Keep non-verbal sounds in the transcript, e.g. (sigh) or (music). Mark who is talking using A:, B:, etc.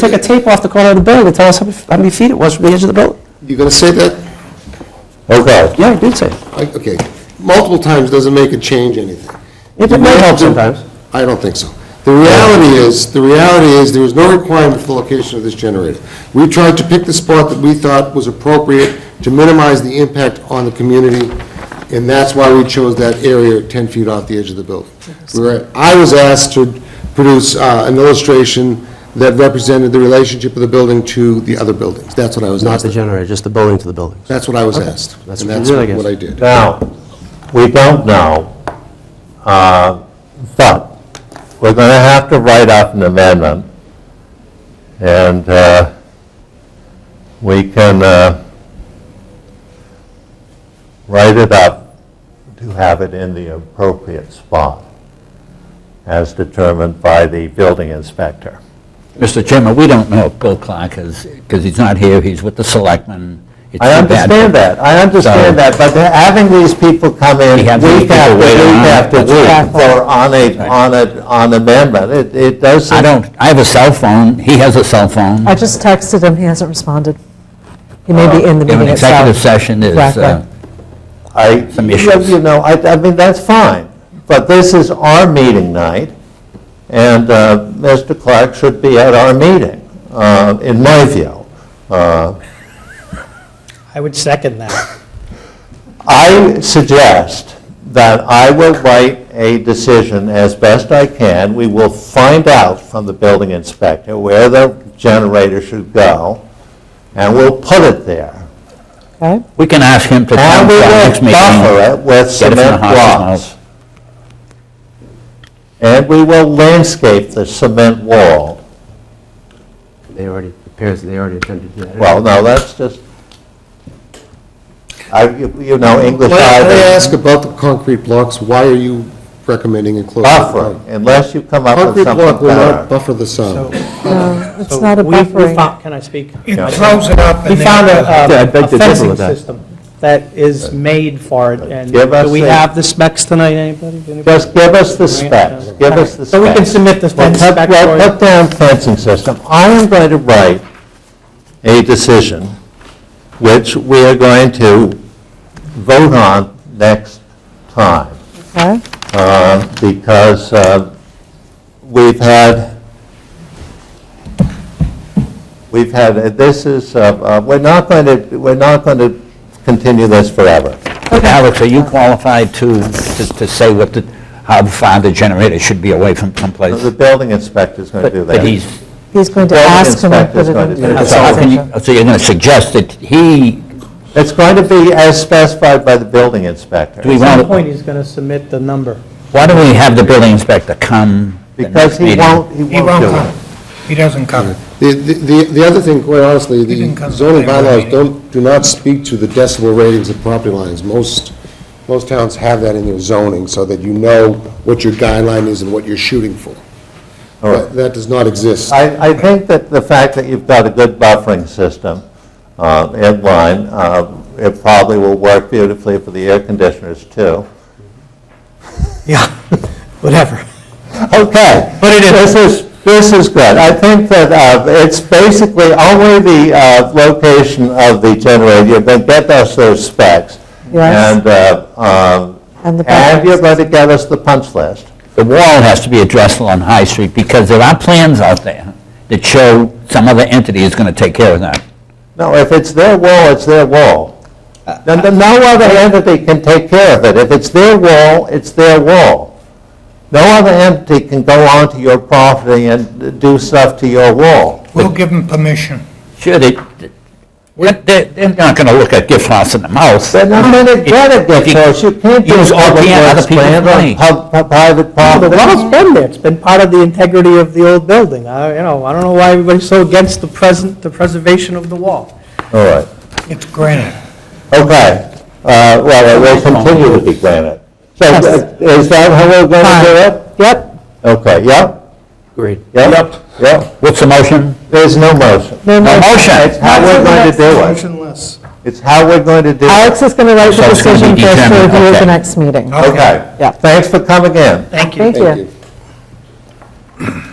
A: Take a tape off the corner of the building to tell us how many- how many feet it was from the edge of the building.
B: You gonna say that?
C: Okay.
A: Yeah, I did say. it.
B: I- Okay, multiple times doesn't make it change anything.
A: It it might help sometimes.
B: I don't think so. The reality is, the reality is, there is no requirement for the location of this generator. We tried to pick the spot that we thought was appropriate to minimize the impact on the community, and that's why we chose that area 10 feet off the edge of the building. We were- I was asked to produce uh, an illustration that represented the relationship of the building to the other buildings. That's what I was
A: Not the
B: asked.
A: generator, just the building to the building.
B: That's what I was asked.
A: That's
B: and
A: what you did, I guess.
B: What I did.
C: Now, we don't know, uh, but we're going to have to write up an amendment, and uh, we can uh, write it up to have it in the appropriate spot, as determined by the building inspector.
D: Mr. Chairman, we don't know if Bill Clark is, because he's not here, he's with the selectmen. It's
C: I
D: too bad.
C: understand that, I understand that, but they're having these people come in
D: We
C: week
D: have these people
C: after
D: waiting on
C: week
D: it.
C: after
D: That's
C: week
D: right.
C: for on a, on a, on amendment, it, it does
D: I
C: seem
D: don't, I have a cell phone, he has a cell phone.
E: I just texted him, he hasn't responded. He may be in the
D: If an
E: meeting
D: executive
E: itself.
D: session is, uh,
E: Exactly.
C: I,
D: Some
C: you
D: issues.
C: you know, I, I mean, that's fine, but this is our meeting night, and uh, Mr. Clark should be at our meeting, uh, in my view. Uh,
F: I would second that.
C: I suggest that I will write a decision as best I can. We will find out from the building inspector where the generator should go, and we'll put it there.
E: Okay.
D: we can ask him to
C: And
D: come
C: we
D: to our
C: will
D: next meeting.
C: buffer it with
D: Get it from the
C: cement
D: horse's
C: blocks.
D: mouth.
C: And we will landscape the cement wall.
A: They already, appears they already attempted to do that.
C: Well, no, that's just, I, you you know, English
B: Can I- can I
C: either
B: ask about the concrete blocks? Why are you recommending enclosure?
C: buffer, unless you come up
B: Concrete
C: with
B: block
C: something
B: will not
C: better.
B: buffer the sound.
E: No, it's
F: So
E: not a
F: we- we
E: buffering.
F: found- Can I speak?
G: It throws it up
F: We
G: and
F: found
G: then,
A: Yeah, I
F: a-
A: beg
F: a
A: to differ
F: a fencing
A: with that.
F: system that is made for it, and
C: Give us
F: do we
C: a-
F: have the specs tonight, anybody? Anybody?
C: Just give us the specs, give us the specs.
F: So we can submit the
C: Well,
F: fence
C: put-
F: spec
C: well,
F: for you.
C: put down fencing system. I am going to write a decision, which we are going to vote on next time,
E: Okay.
C: uh, because uh, we've had, we've had, this is, uh, uh, we're not going to, we're not going to continue this forever.
D: Alex, are you qualified to, to to say what the, how far the generator should be away from someplace?
C: The building inspector's going to do that.
D: But he's,
E: He's going to
C: Building
E: ask him to
C: inspector's
E: put it
C: going to
E: in.
C: do
E: the
C: it.
D: so how can
E: session.
D: you, so you're going to suggest that he,
C: It's going to be as specified by the building inspector.
D: do we
F: At some
D: want,
F: point, he's going to submit the number.
D: why don't we have the building inspector come? the
C: Because
D: next
C: he
D: meeting?
C: won't, he
G: he
C: won't
G: won't
C: do
G: come.
C: it.
G: He doesn't come.
B: The, the- the the other thing, quite honestly,
G: didn't come
B: the
G: to
B: zoning
G: the regular
B: bylaws
G: meeting.
B: don't, do not speak to the decibel ratings of property lines. Most, most towns have that in their zoning, so that you know what your guideline is and what you're shooting for.
C: All right.
B: That that does not exist.
C: I, I think that the fact that you've got a good buffering system uh, in line, uh, it probably will work beautifully for the air conditioners too.
F: (laughs) Yeah, whatever.
C: Okay. But it is. This is, this is good. I think that uh, it's basically only the uh, location of the generator, you're going to get us those specs.
E: Yes.
C: And, uh, um,
E: And the
C: and you're
E: buffering
C: going to get us the punch list.
D: The wall has to be addressed on High Street, because there are plans out there that show some other entity is going to take care of that.
C: No, if it's their wall, it's their wall. No no- no other entity can take care of it. If it's their wall, it's their wall. No other entity can go onto your property and do stuff to your wall.
G: We'll give him permission.
D: Sure, they, but they- they're not going to look at gift horse in the mouth.
C: They're not going to get a gift horse. You can't do
D: Use
C: public
D: OPM, other
C: works
D: people's
C: plan
D: money.
C: on pub- pub- private
F: The
C: property.
F: wall's been there, it's been part of the integrity of the old building. I, you know, I don't know why everybody's so against the present, the preservation of the wall.
C: All right,
G: It's granted.
C: okay. Uh, Well, it will continue to be granted. So uh, is that how we're going to do it? Yep. Okay, yep?
A: Agreed.
C: Yep. Yep.
D: What's the motion?
C: There's no motion.
E: No motion.
C: It's how we're going to do it.
G: Motionless.
C: It's how we're going to do it.
E: Alex is going to write
D: So
E: the
D: it's gonna
E: decision
D: be
E: for us to
D: determined,
E: review at
D: okay.
E: the next meeting.
C: Okay.
E: Yeah.
C: Thanks for coming in.
G: Thank you.
E: Thank you.
B: you.